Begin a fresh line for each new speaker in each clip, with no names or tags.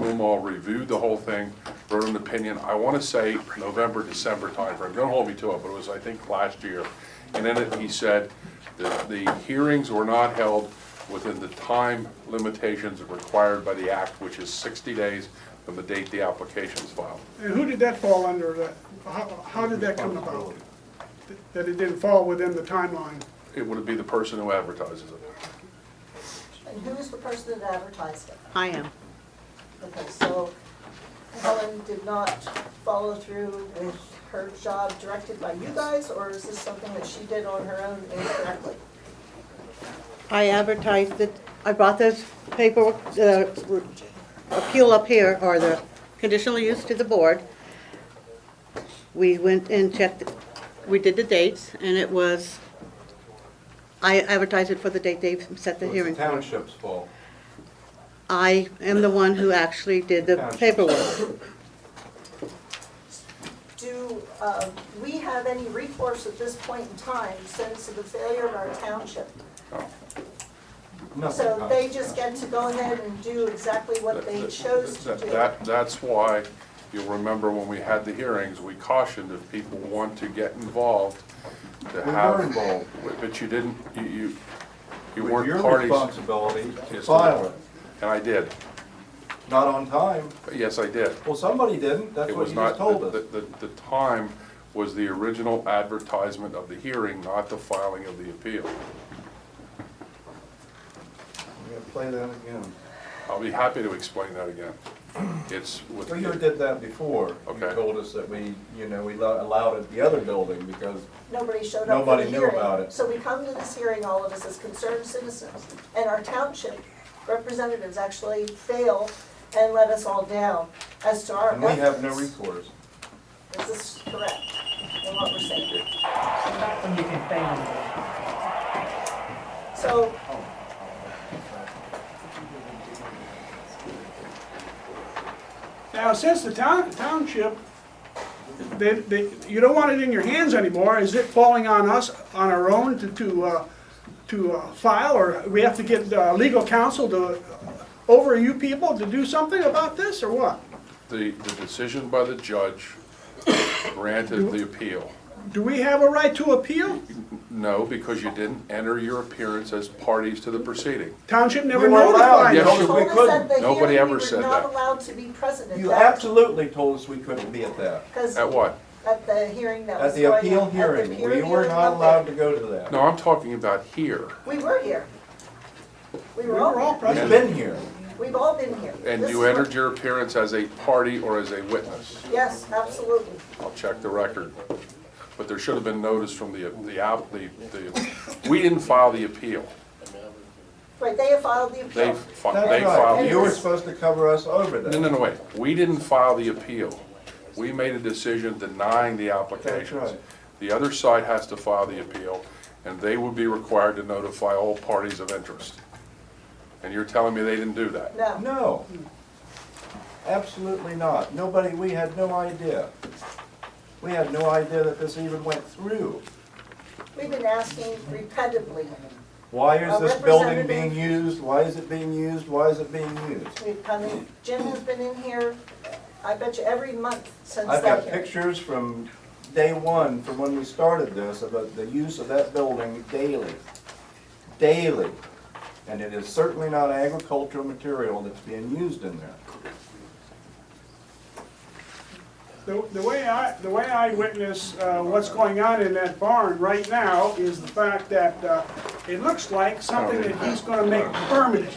Umar reviewed the whole thing, wrote an opinion, I want to say November, December timeframe, don't hold me to it, but it was, I think, last year. And in it, he said that the hearings were not held within the time limitations required by the act, which is 60 days from the date the application's filed.
And who did that fall under, that, how, how did that come about? That it didn't fall within the timeline?
It would be the person who advertises it.
And who is the person that advertised it?
I am.
Okay, so Helen did not follow through with her job directed by you guys, or is this something that she did on her own incorrectly?
I advertised it, I brought this paper, the appeal up here, or the conditional use to the board. We went and checked, we did the dates, and it was, I advertised it for the date they set the
So It's
hearing.
the township's fault.
I am the one who actually did the paperwork.
Do uh, we have any recourse at this point in time since of the failure of our township?
Nothing
So they
comes.
just get to go ahead and do exactly what they chose to
That-
do?
That, that's why, you'll remember when we had the hearings, we cautioned if people want to get involved, to
We
have.
were involved.
But you didn't, you, you, you
With
weren't
your
parties.
responsibility to
Yes,
file it,
And I did,
not on time.
yes, I did.
Well, somebody didn't, that's
It
what
was
you
not,
just told
the,
us.
the, the time was the original advertisement of the hearing, not the filing of the appeal.
I'm gonna play that again.
I'll be happy to explain that again. It's with.
Well, you did that before. You
Okay.
told us that we, you know, we lo- allowed it the other building because
Nobody showed up for the
Nobody
hearing.
knew about it.
So we come to this hearing, all of us as concerned citizens, and our township representatives actually fail and let us all down as to our
and we have no
efforts.
recourse.
Is this correct in what we're saying?
And you can thank them.
So,
Now, since the town, township, they, they, you don't want it in your hands anymore, is it falling on us, on our own to, to, uh, to uh, file, or we have to get, uh, legal counsel to, uh, over you people to do something about this, or what?
The, the decision by the judge granted the appeal.
Do we have a right to appeal?
No, because you didn't enter your appearance as parties to the proceeding.
Township never
We were
notified
allowed, you
Yes,
us.
told
you-
us
told us
we
at
couldn't.
the
Nobody
hearing, we
ever
were
said
not
that.
allowed to be present at
You
that.
absolutely told us we couldn't be at that.
Because
At what?
at the hearing that
At
was
the
going on.
appeal
at the
hearing,
peer
we were
hearing,
not
nothing.
allowed to go to that.
No, I'm talking about here.
We were here. We
We
were
were all
all here.
We've
present.
been here.
We've all been here.
And
This
you
is what-
entered your appearance as a party or as a witness.
Yes, absolutely.
I'll check the record. But there should have been notice from the, the, app- the, the, we didn't file the appeal.
Right, they have filed the
They,
appeal.
fi- they
That's
filed.
right,
the-
you were supposed to cover us over
No,
that.
no, no, wait. We didn't file the appeal. We made a decision denying the applications.
That's right.
The other side has to file the appeal, and they would be required to notify all parties of interest. And you're telling me they didn't do that?
No,
No, absolutely not. Nobody, we had no idea. We had no idea that this even went through.
we've been asking repeatedly.
Why is
A
this building
representative-
being used? Why is it being used? Why is it being used?
We've come in, Jim has been in here, I bet you every month since that.
I've got
hearing.
pictures from day one, from when we started this, about the use of that building daily, daily. And it is certainly not agricultural material that's being used in there.
The, the way I, the way I witness, uh, what's going on in that barn right now is the fact that, uh, it looks like something that he's gonna make permanent.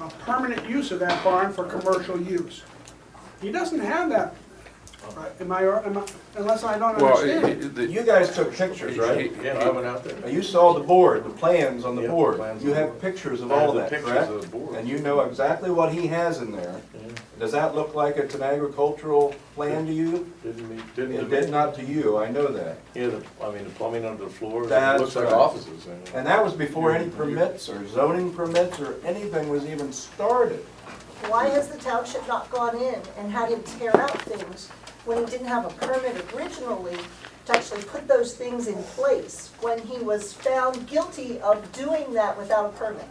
A permanent use of that barn for commercial use. He doesn't have that, uh, am I, am I- unless I don't
Well,
understand.
it- it- the-
You guys took pictures, right?
he-
Yeah, I went out there.
You saw the board, the plans on the
Yeah,
board.
plans
You
on the
have
board.
pictures of
I have
all
the
that, correct?
pictures of the board.
And you know exactly what he has in there. Does that look like it's an agricultural plan to you?
Didn't meet,
It
didn't.
did not to you, I know that.
Yeah, the, I mean, the plumbing under the floor, it
That's
looks like
right.
offices. I mean.
And that was before any permits or zoning permits or anything was even started.
Why has the township not gone in and had him tear out things when he didn't have a permit originally to actually put those things in place when he was found guilty of doing that without a permit?